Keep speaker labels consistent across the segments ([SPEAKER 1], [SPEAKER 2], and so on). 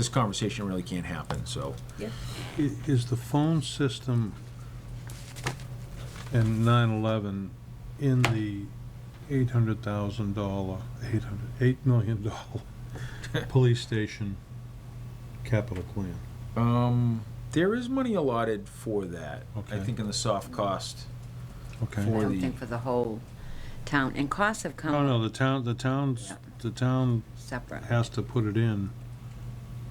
[SPEAKER 1] this conversation really can't happen, so.
[SPEAKER 2] Yep.
[SPEAKER 3] I- Is the phone system and 9/11 in the $800,000, 800, $8 million dollar police station capital plan?
[SPEAKER 1] Um, there is money allotted for that. I
[SPEAKER 3] Okay.
[SPEAKER 1] think in the soft cost.
[SPEAKER 3] Okay.
[SPEAKER 1] For
[SPEAKER 2] I don't
[SPEAKER 1] the-
[SPEAKER 2] think for the whole town, and costs have
[SPEAKER 3] No,
[SPEAKER 2] come
[SPEAKER 3] no, the town, the town's,
[SPEAKER 2] Yeah.
[SPEAKER 3] the town
[SPEAKER 2] separate.
[SPEAKER 3] has to put it in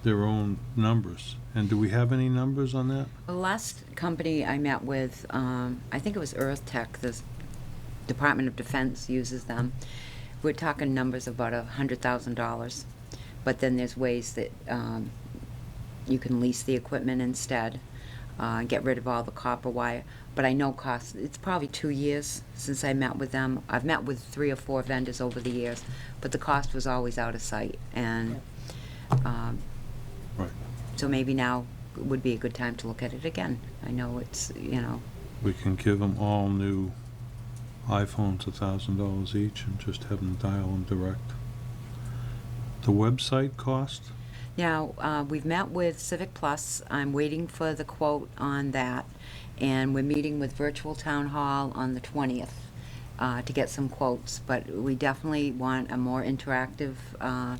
[SPEAKER 3] their own numbers. And do we have any numbers on that?
[SPEAKER 2] The last company I met with, um, I think it was Earth Tech, the Department of Defense uses them. We're talking numbers of about a hundred thousand dollars, but then there's ways that, um, you can lease the equipment instead, uh, get rid of all the copper wire. But I know costs, it's probably two years since I met with them. I've met with three or four vendors over the years, but the cost was always out of sight and, um,
[SPEAKER 3] Right.
[SPEAKER 2] so maybe now would be a good time to look at it again. I know it's, you know,
[SPEAKER 3] We can give them all new iPhones a thousand dollars each and just have them dial them direct. The website cost,
[SPEAKER 2] now, uh, we've met with Civic Plus. I'm waiting for the quote on that. And we're meeting with Virtual Town Hall on the 20th uh, to get some quotes. But we definitely want a more interactive uh,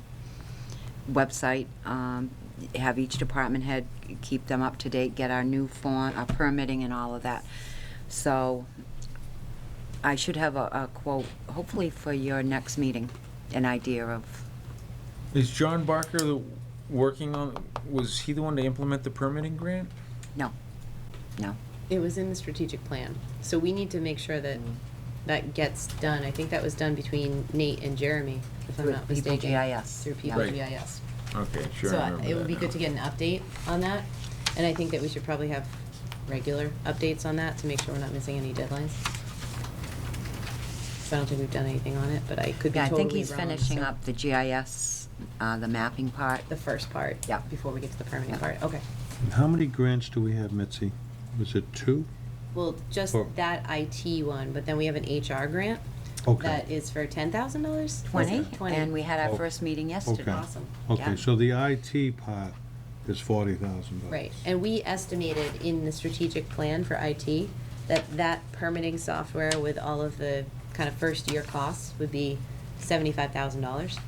[SPEAKER 2] website. um, Have each department head keep them up to date, get our new form, our permitting and all of that. So I should have a, a quote, hopefully for your next meeting, an idea of,
[SPEAKER 1] Is John Barker the, working on, was he the one to implement the permitting grant?
[SPEAKER 2] no, no.
[SPEAKER 4] It was in the strategic plan, so we need to make sure that that gets done. I think that was done between Nate and Jeremy, if I'm
[SPEAKER 2] With
[SPEAKER 4] not mistaken.
[SPEAKER 2] PPGIS,
[SPEAKER 4] Through
[SPEAKER 2] yeah.
[SPEAKER 1] Right.
[SPEAKER 4] PPGIS.
[SPEAKER 1] Okay, sure.
[SPEAKER 4] So
[SPEAKER 1] I
[SPEAKER 4] I-
[SPEAKER 1] remember
[SPEAKER 4] it would
[SPEAKER 1] that
[SPEAKER 4] be
[SPEAKER 1] now.
[SPEAKER 4] good to get an update on that, and I think that we should probably have regular updates on that to make sure we're not missing any deadlines. So I don't think we've done anything on it, but I could be
[SPEAKER 2] Yeah, I
[SPEAKER 4] totally
[SPEAKER 2] think
[SPEAKER 4] wrong.
[SPEAKER 2] he's finishing
[SPEAKER 4] so-
[SPEAKER 2] up the GIS, uh, the mapping part.
[SPEAKER 4] The first part.
[SPEAKER 2] Yeah.
[SPEAKER 4] Before we get to the permitting
[SPEAKER 2] Yeah.
[SPEAKER 4] part, okay.
[SPEAKER 3] And how many grants do we have, Mitzi? Was it two?
[SPEAKER 4] Well, just
[SPEAKER 3] Or-
[SPEAKER 4] that IT one, but then we have an HR grant
[SPEAKER 3] Okay.
[SPEAKER 4] that is for ten thousand dollars?
[SPEAKER 2] Twenty,
[SPEAKER 4] Twenty.
[SPEAKER 2] and we had our
[SPEAKER 3] Oh,
[SPEAKER 2] first meeting yesterday.
[SPEAKER 3] okay.
[SPEAKER 4] Awesome.
[SPEAKER 2] yeah.
[SPEAKER 3] Okay, so the IT part is forty thousand dollars.
[SPEAKER 4] Right, and we estimated in the strategic plan for IT that that permitting software with all of the kind of first-year costs would be seventy-five thousand dollars.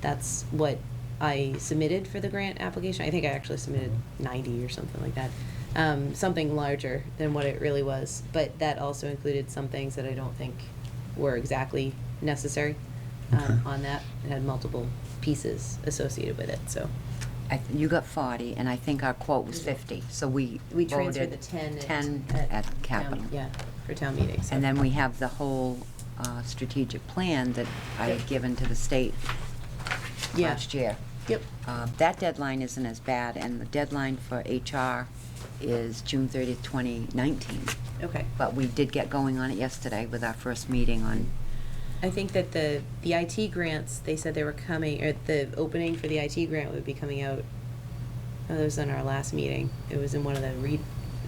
[SPEAKER 4] That's what I submitted for the grant application. I think I actually submitted ninety or something like that. Um, something larger than what it really was, but that also included some things that I don't think were exactly necessary um,
[SPEAKER 3] Okay.
[SPEAKER 4] on that. It had multiple pieces associated with it, so.
[SPEAKER 2] I th- You got forty, and I think our quote was fifty, so we
[SPEAKER 4] We transferred the
[SPEAKER 2] voted
[SPEAKER 4] ten. at-
[SPEAKER 2] Ten
[SPEAKER 4] town-
[SPEAKER 2] at capital.
[SPEAKER 4] Yeah, for town meetings.
[SPEAKER 2] And then we have the whole uh, strategic plan that I had given to the state
[SPEAKER 4] Yeah,
[SPEAKER 2] last year.
[SPEAKER 4] yep,
[SPEAKER 2] Uh, That deadline isn't as bad, and the deadline for HR is June thirtieth, twenty nineteen.
[SPEAKER 4] okay.
[SPEAKER 2] But we did get going on it yesterday with our first meeting on,
[SPEAKER 4] I think that the, the IT grants, they said they were coming, or the opening for the IT grant would be coming out. Oh, that was in our last meeting. It was in one of the read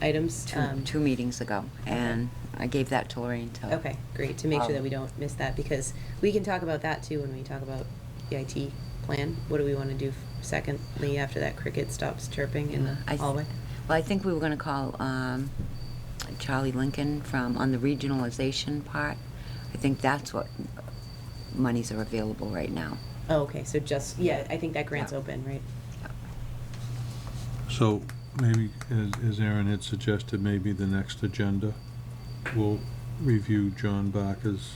[SPEAKER 4] items.
[SPEAKER 2] two,
[SPEAKER 4] um,
[SPEAKER 2] two meetings ago, and I gave that to Lorraine to.
[SPEAKER 4] Okay, great, to make sure that
[SPEAKER 2] Um,
[SPEAKER 4] we don't miss that, because we can talk about that too when we talk about the IT plan. What do we want to do f- secondly after that cricket stops chirping in
[SPEAKER 2] Mm, I
[SPEAKER 4] the
[SPEAKER 2] th-
[SPEAKER 4] hallway?
[SPEAKER 2] Well, I think we were gonna call, um, Charlie Lincoln from, on the regionalization part. I think that's what monies are available right now.
[SPEAKER 4] Oh, okay, so just, yeah, I think that grant's
[SPEAKER 2] Yeah.
[SPEAKER 4] open, right?
[SPEAKER 3] So maybe, as as Aaron had suggested, maybe the next agenda, we'll review John Barker's,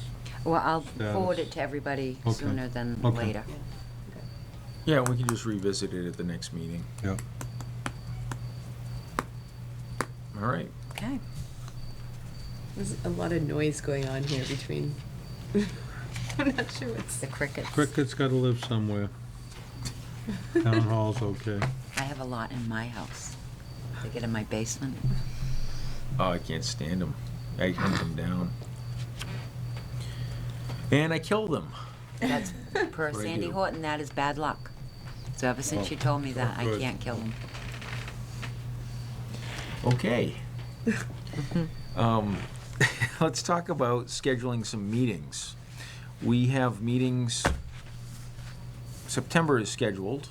[SPEAKER 2] Well, I'll forward
[SPEAKER 3] Status.
[SPEAKER 2] it to everybody
[SPEAKER 3] Okay.
[SPEAKER 2] sooner than
[SPEAKER 3] Okay.
[SPEAKER 2] later.
[SPEAKER 4] Yeah.
[SPEAKER 1] Yeah, we can just revisit it at the next meeting.
[SPEAKER 3] yeah.
[SPEAKER 1] All right.
[SPEAKER 2] Okay.
[SPEAKER 4] There's a lot of noise going on here between. I'm not sure what's.
[SPEAKER 2] The crickets.
[SPEAKER 3] Cricket's gotta live somewhere. Town hall's okay.
[SPEAKER 2] I have a lot in my house. They get in my basement.
[SPEAKER 1] Oh, I can't stand them. I hunt them down. And I kill them.
[SPEAKER 2] That's, per
[SPEAKER 1] What do I
[SPEAKER 2] Sandy
[SPEAKER 1] do?
[SPEAKER 2] Horton, that is bad luck. So ever since she told me that, I
[SPEAKER 3] Good.
[SPEAKER 2] can't kill them.
[SPEAKER 1] Okay. Um, Let's talk about scheduling some meetings. We have meetings, September is scheduled,